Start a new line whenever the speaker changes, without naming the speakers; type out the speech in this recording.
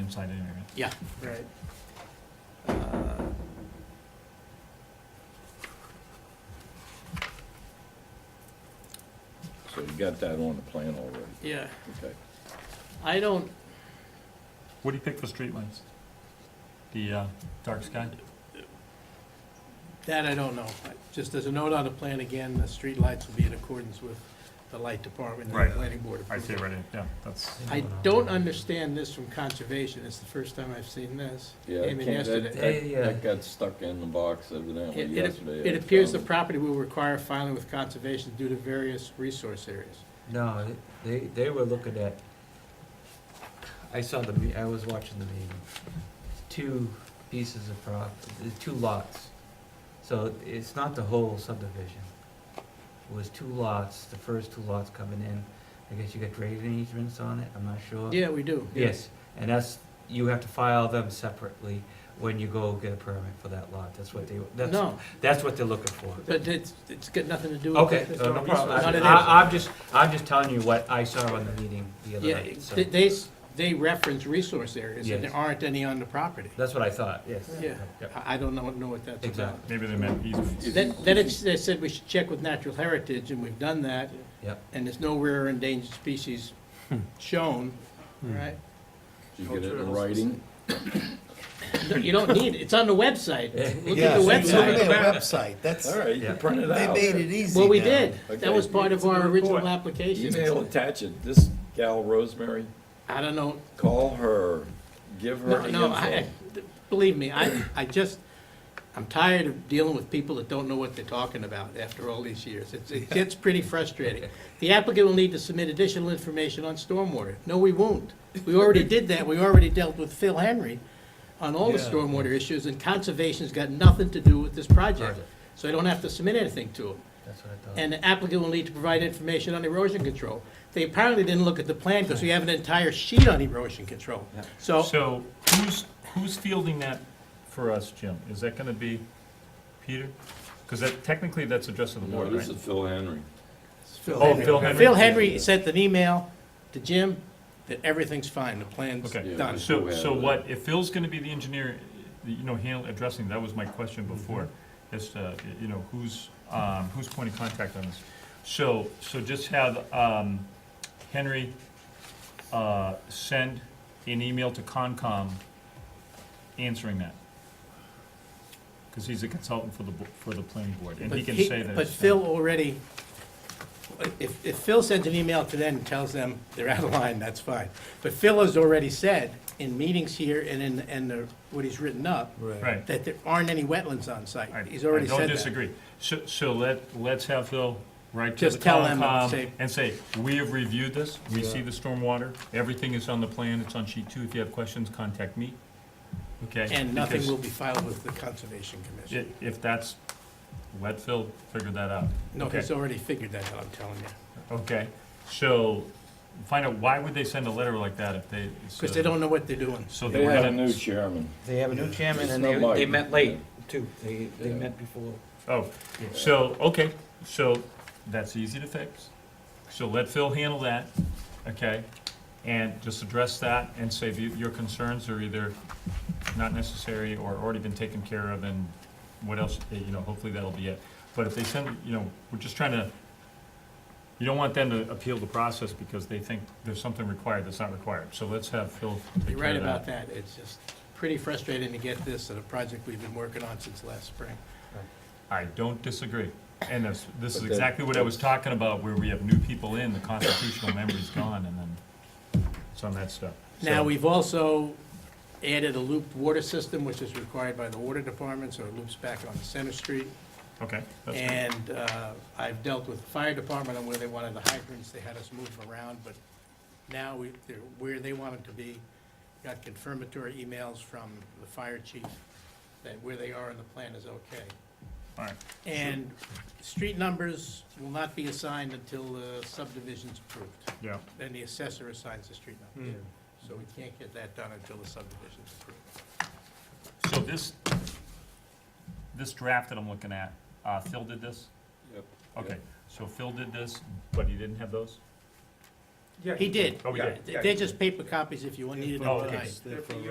same site anyway, right?
Yeah.
Right.
Uh,
So you got that on the plan already,
Yeah,
okay.
I don't,
What do you pick for streetlights? The uh, dark sky?
That I don't know. Just as a note on the plan, again, the street lights will be in accordance with the light department and
Right.
the planning board.
I see it
approval.
right here, yeah, that's,
I don't understand this from conservation. It's the first time I've seen this.
Yeah,
Came in
that-
yesterday.
that-
Yeah, yeah.
That got stuck in the box evidently
It- it-
yesterday.
It appears the
Um,
property will require filing with conservation due to various resource areas.
No, they, they were looking at, I saw the, me- I was watching the meeting, two pieces of prop, the two lots. So it's not the whole subdivision. It was two lots, the first two lots coming in, I guess you got grading easements on it, I'm not sure.
Yeah, we do.
Yes, and that's, you have to file them separately when you go get a permit for that lot, that's what they, that's,
No,
that's what they're looking for.
but it's, it's got nothing to do with.
Okay,
the-
uh, no problem.
Not an
I, I'm just, I'm just telling you what I saw on the meeting the other
Yeah,
night, so,
they- they, s- they reference resource areas and
Yes.
there aren't any on the property.
that's what I thought, yes.
Yeah.
Yep.
I I don't know, know what that's about.
Exactly.
maybe they meant easements.
Is-
Then, then it's, they said we should check with natural heritage, and we've done that.
Yep.
And there's no rare endangered species
Hmm.
shown, right?
Did you get it in writing?
No, You don't need, it. it's on the website. Look
Yeah,
at the
so you look
website.
at the website, that's,
All right, you
Yeah.
can print it
they
out.
made it easy
Well, we
now.
did. That
Okay.
was part of our original application.
Email, attach it, this gal Rosemary,
I don't know,
call her, give her
no,
the
no, I,
info.
believe me, I, I just, I'm tired of dealing with people that don't know what they're talking about after all these years. It's, it gets pretty frustrating. The applicant will need to submit additional information on stormwater. No, we won't. We already did that. We already dealt with Phil Henry on all the
Yeah.
stormwater issues, and conservation's got nothing to do with this project.
Project.
So I don't have to submit anything to them.
That's what I thought.
And the applicant will need to provide information on erosion control. They apparently didn't look at the plan, because we have an entire sheet on erosion control. So
So who's, who's fielding that for us, Jim? Is that gonna be Peter? Because that, technically, that's addressed to the
No,
board, right?
this is Phil Henry.
Phil
Oh,
Henry.
Phil Henry.
Phil Henry sent an email to Jim that everything's fine, the plan's
Okay.
done.
Yeah.
So,
Who
so
have-
what, if Phil's gonna be the engineer, you know, handle, addressing, that was my question before,
Mm-hmm.
as to, you know, who's, um, who's point of contact on this? So, so just have, um, Henry, uh, send an email to Concom answering that. Cause he's a consultant for the, bo- for the planning board, and
But
he can
he-
say that.
But
it's-
Phil already, if, if Phil sends an email to them and tells them they're out of line, that's fine. But Phil has already said in meetings here and in, and the, what he's written up,
Right.
that there aren't any wetlands on
I-
site. He's already
I
said
don't
that.
disagree. So, so let, let's have Phil write to the
Just tell them
Concom
and say-
and say, we have reviewed this, we see the stormwater, everything is on the plan, it's on sheet two, if you have questions, contact me, okay?
And nothing
Because
will be filed with the Conservation Commission.
i- If that's, let Phil figure that out.
No,
Okay.
he's already figured that out, I'm telling you.
Okay, so find out, why would they send a letter like that if they?
Because they don't know what they're doing.
So
They
they were
had a
gonna,
new chairman.
They have a new chairman
It's
and
not
they,
Mike.
they met late too. They, they
Yeah.
met before.
oh, so, okay, so that's easy to fix. So let Phil handle that, okay? And just address that and say that your concerns are either not necessary or already been taken care of and what else, eh, you know, hopefully that'll be it. But if they send, you know, we're just trying to, you don't want them to appeal the process because they think there's something required that's not required. So let's have Phil take
You're
care
right
of that.
about that. It's just pretty frustrating to get this at a project we've been working on since last spring.
I don't disagree. And this, this is
But then-
exactly what I was talking about, where we have new people in, the constitutional memory's gone, and then some of that stuff.
Now,
So-
we've also added a looped water system, which is required by the water department, so it loops back on Center Street.
Okay, that's good.
And uh, I've dealt with the fire department on where they wanted the hydrants, they had us move them around, but now we, they're where they want them to be. Got confirmatory emails from the fire chief that where they are in the plan is okay.
all right.
And street numbers will not be assigned until the subdivision's approved.
Yeah,
Then the assessor assigns the street number.
Hmm.
So we can't get that done until the subdivision's approved.
so this, this draft that I'm looking at, uh, Phil did this?
Yep.
Okay, so Phil did this, but he didn't have those? Yeah,
He did.
Oh, we
yeah,
did.
yeah,
They're just paper copies if you needed them
Oh, okay.
tonight.
They're for